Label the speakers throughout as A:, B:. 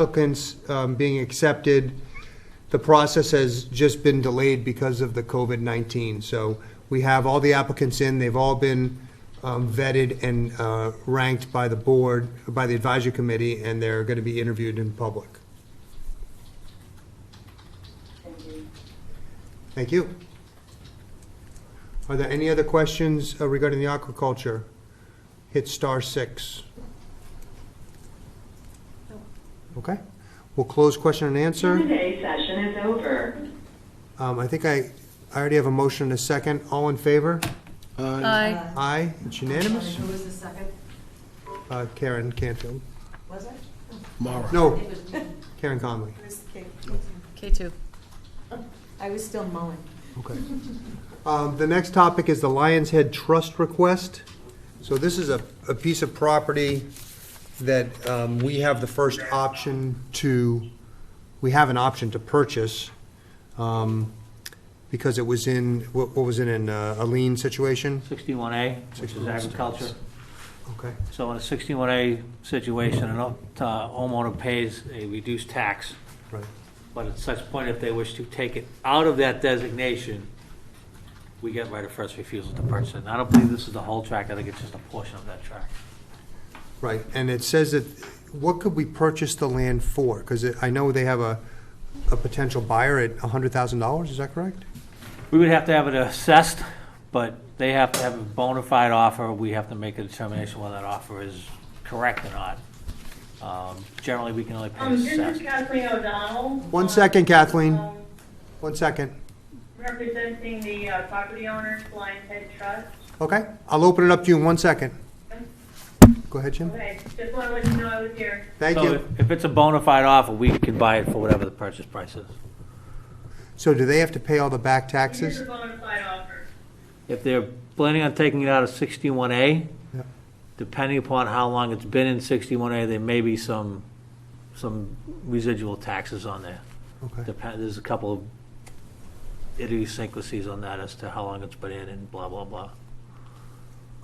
A: applicants um, being accepted. The process has just been delayed because of the COVID-19. So we have all the applicants in, they've all been um, vetted and uh, ranked by the board, by the advisory committee, and they're going to be interviewed in public. Thank you. Are there any other questions uh, regarding the aquaculture? Hit star six. Okay, we'll close question and answer.
B: Q&A session is over.
A: Um, I think I, I already have a motion and a second. All in favor?
C: Aye.
A: Aye, it's unanimous.
D: Sorry, Who was the second?
A: Uh, Karen Canfield.
D: Was it?
E: Mara.
A: No,
D: It was me.
A: Karen Conley.
C: K2.
D: I was still mulling.
A: Okay. Um, The next topic is the Lions Head Trust request. So this is a, a piece of property that um, we have the first option to, we have an option to purchase um, because it was in, what what was it, in uh, a lien situation?
F: 61A, which is agriculture.
A: Okay,
F: So in a 61A situation, an uh, homeowner pays a reduced tax,
A: right.
F: but at such point, if they wish to take it out of that designation, we get right of first refusal to purchase it. And I don't believe this is the whole tract, I think it's just a portion of that tract.
A: Right, and it says that, what could we purchase the land for? Because I know they have a, a potential buyer at $100,000, is that correct?
F: We would have to have it assessed, but they have to have a bona fide offer. We have to make a determination whether that offer is correct or not. Um, Generally, we can only pay
G: Um, this is
F: assessed.
G: Kathleen O'Donnell.
A: One second, Kathleen.
G: Um,
A: One second.
G: Representing the uh, property owners, Blind Head Trust.
A: Okay, I'll open it up to you in one second. Go ahead, Jim.
G: Okay, just want to let you know I was here.
A: Thank
F: So
A: you.
F: if- If it's a bona fide offer, we can buy it for whatever the purchase price is.
A: So do they have to pay all the back
G: Here's
A: taxes?
G: a bona fide offer.
F: If they're planning on taking it out of 61A,
A: Yeah.
F: depending upon how long it's been in 61A, there may be some, some residual taxes on there.
A: Okay,
F: Depend, there's a couple of idiosyncrasies on that as to how long it's been in and blah, blah, blah.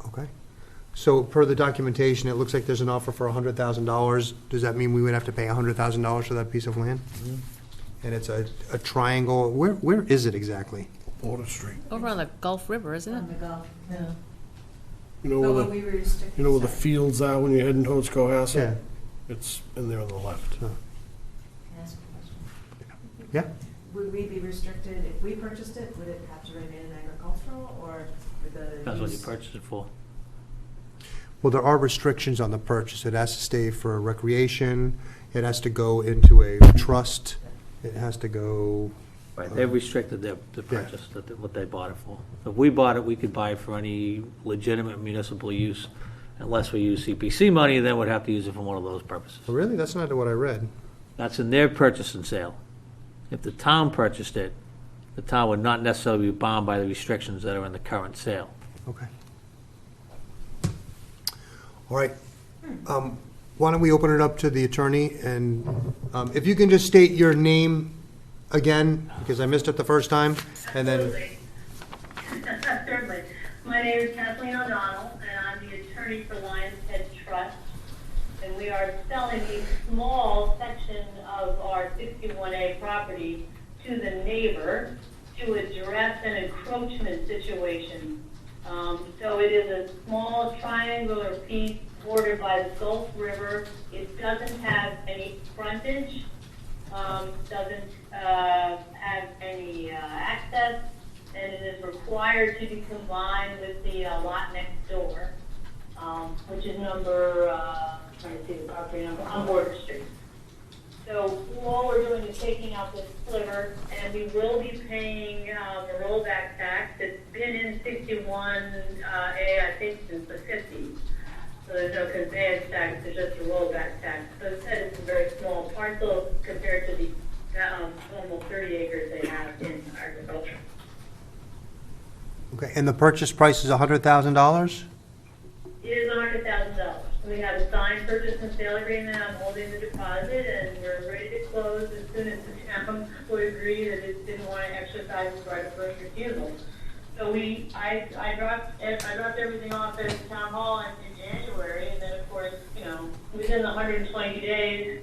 A: okay. So per the documentation, it looks like there's an offer for $100,000. Does that mean we would have to pay $100,000 for that piece of land? And it's a, a triangle, where, where is it exactly?
E: Water Street.
C: Over on the Gulf River, isn't it?
D: On the golf, no.
E: You know
D: But
E: where
D: when
E: the,
D: we were restricted.
E: you know where the
D: sorry.
E: fields are when you're heading towards
A: Yeah,
E: Cohasset? It's in there on the left.
D: Can I ask a question?
A: yeah.
D: Would we be restricted, if we purchased it, would it have to remain agricultural or would the?
F: That's what you
D: use-
F: purchased it for.
A: Well, there are restrictions on the purchase. It has to stay for recreation, it has to go into a trust, it has to go,
F: Right, they've restricted their, the purchase, that, they- what they bought it for. If we bought it, we could buy it for any legitimate municipal use, unless we use CPC money, then we'd have to use it for one of those purposes.
A: really? That's not what I read.
F: That's in their purchase and sale. If the town purchased it, the town would not necessarily be bound by the restrictions that are in the current sale.
A: Okay. All right. Um, Why don't we open it up to the attorney, and um, if you can just state your name again, because I missed it the first time, and then,
G: Absolutely. Certainly. My name is Kathleen O'Donnell, and I'm the attorney for Lions Head Trust. And we are selling a small section of our 61A property to the neighbor to address an encroachment situation. Um, So it is a small triangular piece bordered by the Gulf River. It doesn't have any frontage, um, doesn't uh, have any uh, access, and it is required to be combined with the uh, lot next door, um, which is number, uh, I'm trying to see the property number, on Border Street. So all we're doing is taking out this sliver, and we will be paying um, the rollback tax. It's been in 61A, I think, since the 50s. So there's no conveyance tax, there's just a rollback tax. So it said it's a very small parcel compared to the um, almost 30 acres they have in agriculture.
A: okay, and the purchase price is $100,000?
G: It is $100,000. We have a signed purchase and sale agreement. I'm holding the deposit, and we're ready to close as soon as the town would agree that it didn't want to exercise its right of first refusal. So we, I, I dropped, I dropped everything off at the town hall in in January, and then, of course, you know, within the 120 days,